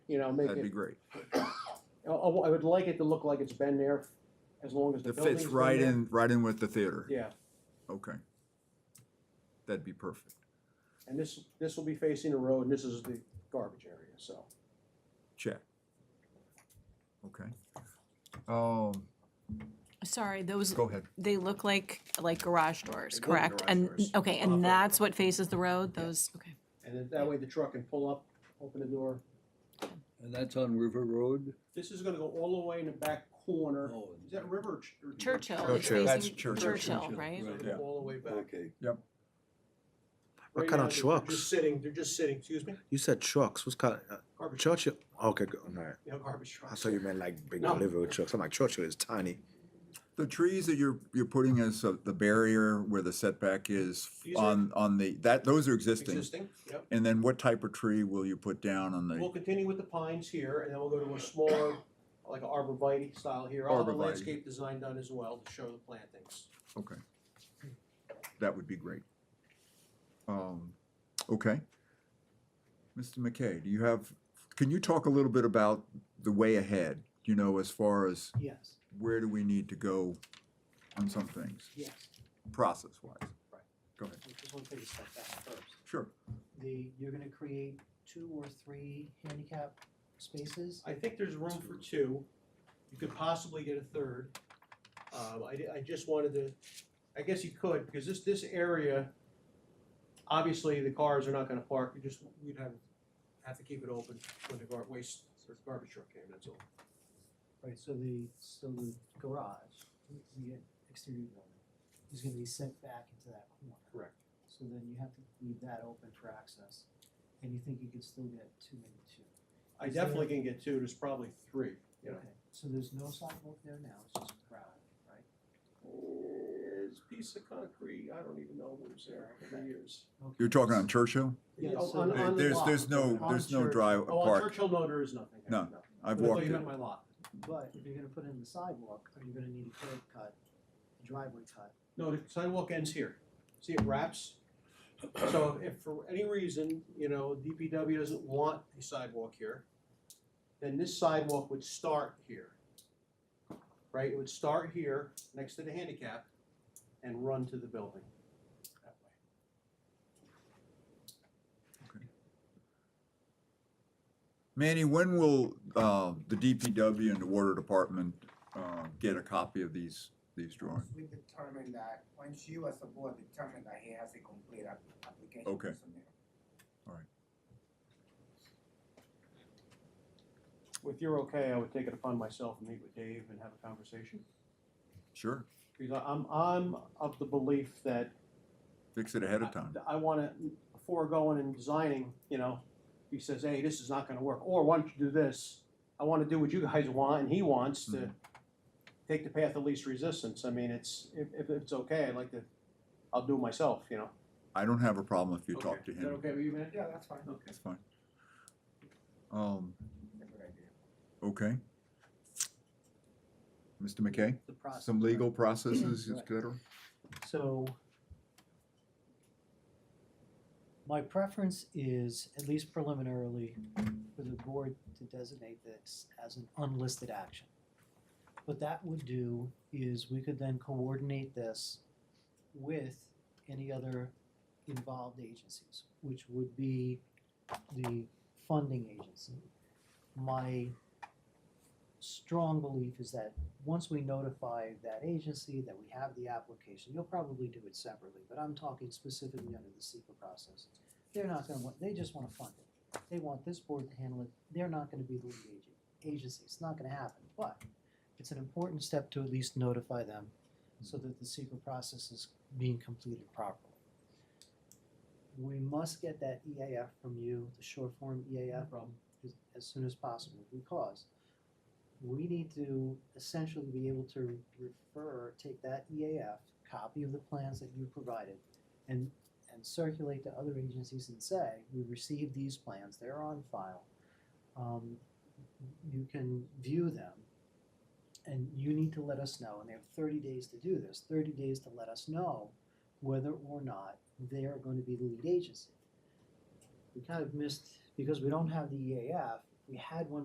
you know, make That'd be it, great. I, I would like it to look like it's been there as long as the It building's fits been right there. in, right in with the theater. Yeah, Okay. That'd be perfect. and this, this will be facing the road, and this is the garbage area, so. Check. Okay. Um, Sorry, those, go ahead. they look like, like garage They doors, look like correct? garage And, doors. Uh-huh. okay, Off and road. that's what faces the road, those, okay. And then that way the truck can pull up, open the door. And that's on River Road? This is gonna go all the way in the back corner. Is that River? or Ch- or- Churchill, it's Oh. Churchill. That's facing Churchill. Churchill, Churchill, right? It's gonna go Yeah. All the way back. Okay. Right kind now, of they're trucks? Just sitting, they're just sitting, excuse me, You said trucks. What's called uh, garbage, Churchill? Okay, good. All right. you know, garbage I trucks. saw you meant like big No. delivery trucks. I'm like Churchill is tiny. The trees that you're, you're putting as uh, the barrier where the setback is These are- on, on the, that, those are existing. Existing, yep. And then what type of tree will you put down on We'll the, continue with the pines here, and then we'll go to a smaller, like an arborvitae style here. I'll have a Arborvitae. landscape design done as well to show the plantings. okay. That would be great. Um, okay. Mr. McKay, do you have, can you talk a little bit about the way ahead? You know, as far as Yes, where do we need to go on some things, yes. process wise? Right. Go ahead. I just want to take a step back first. Sure. The, you're gonna create two or three handicap spaces? I think there's room for two. You could possibly get a third. Um, I, di- I just wanted to, I guess you could, because this, this area, obviously the cars are not gonna park, you just, we'd have, have to keep it open when the gar- waste, or garbage truck came, that's all. Right, so the, so the garage, the exterior building, is gonna be set back into that corner. Correct. So then you have to leave that open for access, and you think you could still get two, maybe two. I definitely can get two, there's probably three, you know. Okay, So there's no sidewalk there now, it's just gravel, right? It's a piece of concrete, I don't even know what was there for years. Okay. You're talking on Churchill? Yeah, Yeah, so- on- There- the There's, block. there's no, On there's no Churchill. drive, Oh, on park. Churchill, no, there is nothing. No, I've I thought walked you it. meant my lot. But if you're gonna put in the sidewalk, are you gonna need a curb cut, a driveway cut? No, the sidewalk ends here. See, it wraps. So if for any reason, you know, DPW doesn't want a sidewalk here, then this sidewalk would start here. Right, it would start here, next to the handicap, and run to the building. that way. Manny, when will, uh, the DPW and the water department, uh, get a copy of these, these drawings? We determine that, once you as a board determine that he has a complete app- application. Okay. to submit. If you're okay, I would take it upon myself and meet with Dave and have a conversation. Sure, Because I- I'm, I'm of the belief that fix it ahead of time. I wanna, before going and designing, you know, he says, hey, this is not gonna work, or why don't you do this? I wanna do what you guys want, and he wants to Mhm. take the path of least resistance, I mean, it's, if, if it's okay, I'd like to, I'll do it myself, you know? I don't have a problem if you talk to Is that him. okay with you, man? Yeah, that's fine, Okay. That's fine. Um, that's a good idea. okay. Mr. McKay, The process. some legal processes, et Right. cetera? So my preference is, at least preliminarily, for the board to designate this as an unlisted action. What that would do is we could then coordinate this with any other involved agencies, which would be the funding agency. My strong belief is that once we notify that agency that we have the application, you'll probably do it separately, but I'm talking specifically under the SEPA process. They're not gonna want, they just wanna fund it. They want this board to handle it. They're not gonna be the lead agent, agency. It's not gonna happen, but it's an important step to at least notify them so that the SEPA process is being completed properly. We must get that EAF from you, the short form EAF, as, as soon as possible, because we need to essentially be able to refer, take that EAF, copy of the plans that you provided, and, and circulate to other agencies and say, we received these plans, they're on file. Um, you can view them, and you need to let us know, and they have thirty days to do this, thirty days to let us know whether or not they are going to be the lead agency. We kind of missed, because we don't have the EAF, we had one